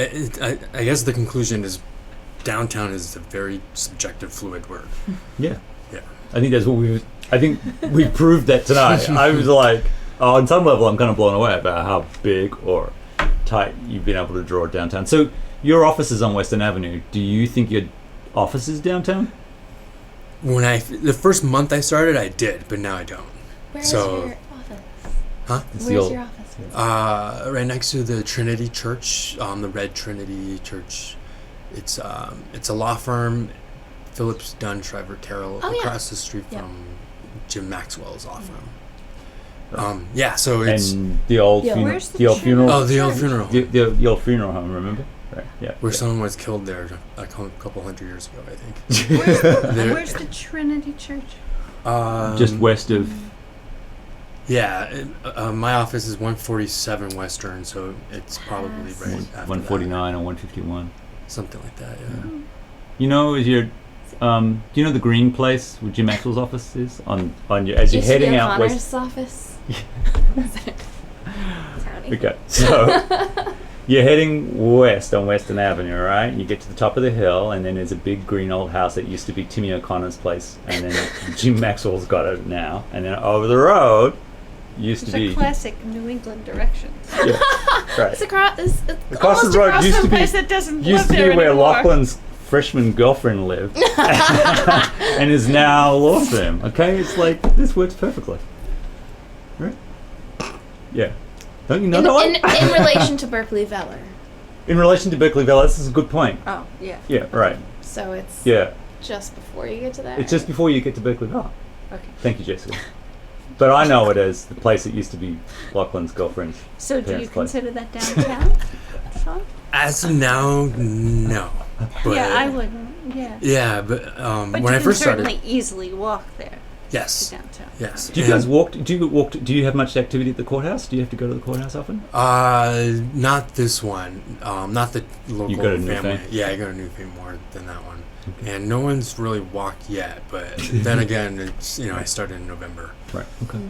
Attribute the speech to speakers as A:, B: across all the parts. A: I, I, I guess the conclusion is downtown is a very subjective, fluid word.
B: Yeah.
A: Yeah.
B: I think that's what we. was- I think we proved that tonight. I was like, uh, on some level, I'm kind of blown away about how big or tight you've been able to draw downtown. So your office is on Western Avenue. Do you think your office is downtown?
A: When I the first month I started, I did, but now I don't.
C: Where's
A: So-
C: your office?
B: It's the
C: Where's
B: old-
C: your office?
A: Uh, right next to the Trinity Church, um, the Red Trinity Church. It's um, it's a law firm, Phillips Dunn Shriver Carroll,
C: Oh, yeah.
A: across the street
C: Yeah.
A: from Jim Maxwell's law firm.
B: Right.
A: Um, yeah, so it's
B: and the old
C: Yeah.
B: funeral.
C: Where's
B: The,
C: the
B: old
C: church?
B: funeral.
A: oh the old
C: Church.
A: funeral
B: The, the, the old funeral home. Remember? Right. Yeah.
A: where
B: yeah.
A: someone was killed there a cou- couple hundred years ago, I think.
D: Where's the,
A: There-
D: where's the Trinity Church?
A: Um,
B: just west of.
A: Yeah, it, uh, uh, my office is 147 Western, so it's probably
C: Pass.
A: right
B: One- Mm-hmm.
A: after
B: 149 or 151.
A: that. something like that. Yeah.
B: You know, is your um, do you know the green place where Jim Maxwell's office is on on your as you're
C: Used to be
B: heading out west?
C: O'Connor's office. County.
B: Okay, so you're heading west on Western Avenue, right? You get to the top of the hill, and then there's a big green old house that used to be Timmy O'Connor's place, and then Jim Maxwell's got it now. And then over the road used
D: It's
B: to be
D: a classic New England direction.
B: right.
C: It's across. It's, it's
B: Across the
C: almost
B: road
C: across
B: used to
C: from
B: be-
D: Place that doesn't
B: used
D: live
B: to be
D: there
B: where
D: anymore.
B: Lachlan's freshman girlfriend lived, and is now a law firm. Okay, it's like this works perfectly, right? Yeah, don't you know
C: in,
B: that one?
C: in, in relation to Berkeley Veller.
B: In relation to Berkeleyville, this is a good point.
D: Oh, yeah.
B: Yeah, right.
C: So it's
B: Yeah,
C: just before you get to that.
B: it's just before you get to Berkeleyville.
D: Okay.
B: Thank you, Jessica. But I know it as the place that used to be Lachlan's girlfriend's.
D: So do
B: Parents
D: you
B: place.
D: consider that downtown? Sean?
A: As of now, no. But,
D: yeah, I wouldn't. Yeah.
A: Yeah, but, um,
D: But
A: when
D: you
A: I
D: can
A: first started,
D: certainly easily walk there to
A: yes,
D: downtown.
A: yes.
B: Do you guys
A: and,
B: walk? Do you walk? Do you have much activity at the courthouse? Do you have to go to the courthouse often?
A: Uh, not this one. Um, not the local
B: go to Newfane?
A: family. Yeah, I go to Newfane more than that one.
B: Okay.
A: And no one's really walked yet, but then again, it's you know I started in November.
B: Right. Okay.
C: Mm.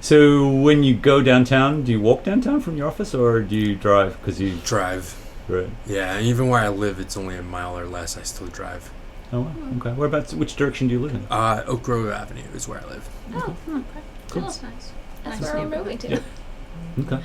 B: So when you go downtown, do you walk downtown from your office, or do you drive? Because you
A: Drive.
B: right.
A: Yeah, and even where I live, it's only a mile or less. I still drive.
B: Oh, wow. okay. Whereabouts? Which direction do you live in?
A: Uh, Oak Grove Avenue is where I live.
D: Oh, hmm.
B: Cool.
D: That's nice.
C: That's
D: Nice
C: where we're
D: neighborhood.
C: moving to.
B: Yeah. Okay.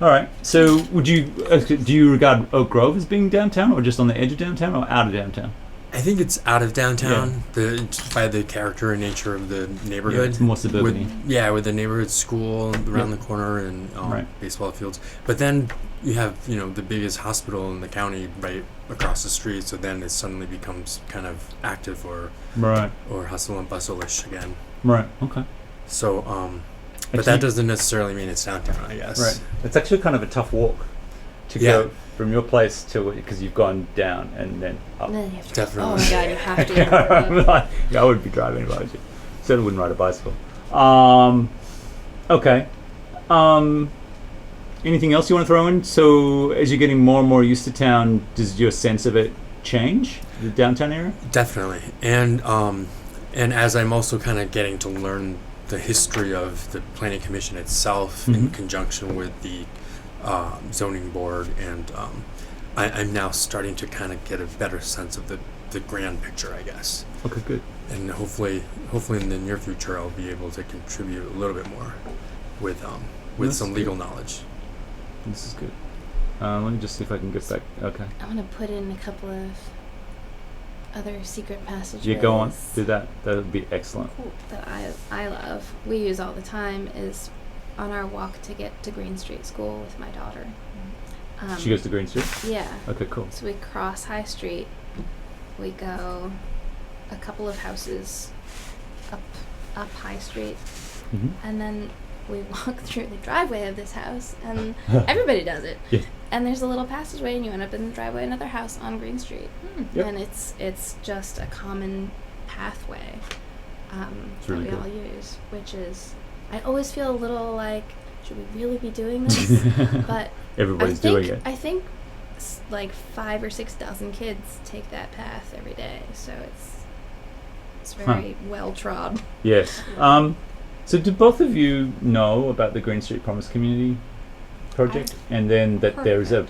B: All right. So, would you uh, do you regard Oak Grove as being downtown, or just on the edge of downtown, or out of downtown?
A: I think it's out of downtown. The it's by the character and nature of the
B: Yeah,
A: neighborhood.
B: it's more
A: with,
B: suburban.
A: yeah, with the neighborhood school around
B: Yeah.
A: the corner and um,
B: Right.
A: baseball fields. But then you have you know the biggest hospital in the county right across the street. So then it suddenly becomes kind of active or
B: Right.
A: or hustle and bustle-ish again.
B: Right. Okay.
A: So, um, but
B: Actually-
A: that doesn't necessarily mean it's downtown. I guess.
B: Right. It's actually kind of a tough walk to
A: Yeah.
B: go from your place to because you've gone down and then up.
C: And then you have to.
A: Definitely.
C: Oh my god, you have to.
B: yeah, I would be driving if I was you. Certainly wouldn't ride a bicycle. Um, okay. Um, anything else you want to throw in? So, as you're getting more and more used to town, does your sense of it change? The downtown area?
A: Definitely, and um, and as I'm also kind of getting to learn the history of the planning commission itself in
B: Mhm.
A: conjunction with the uh, zoning board, and um, I, I'm now starting to kind of get a better sense of the, the grand picture, I guess.
B: Okay, good.
A: And hopefully, hopefully in the near future, I'll be able to contribute a little bit more with um, with
B: That's
A: some legal knowledge.
B: This is good. Uh, let me just see if I can get back. Okay.
C: I want to put in a couple of other secret passages.
B: You go on, do that. That would be excellent.
C: that I I love. We use all the time is on our walk to get to Green Street School with my daughter. Um,
B: She goes to Green Street?
C: Yeah.
B: Okay, cool.
C: So we cross High Street. We go a couple of houses up up High Street,
B: hmm
C: and then we walk through the driveway of this house, and everybody does it.
B: Yeah.
C: And there's a little passageway, and you end up in the driveway of another house on Green Street,
D: Hmm.
B: Yep.
C: and it's it's just a common pathway um,
B: It's really
C: that we
B: good.
C: all use, which is I always feel a little like should we really be doing this? but
B: Everybody's
C: I think,
B: doing it.
C: I think s- like five or six dozen kids take that path every day, so it's it's
B: Huh.
C: very well trod.
B: Yes. Um, so, do both of you know about the Green Street Promise Community project? and then that there is a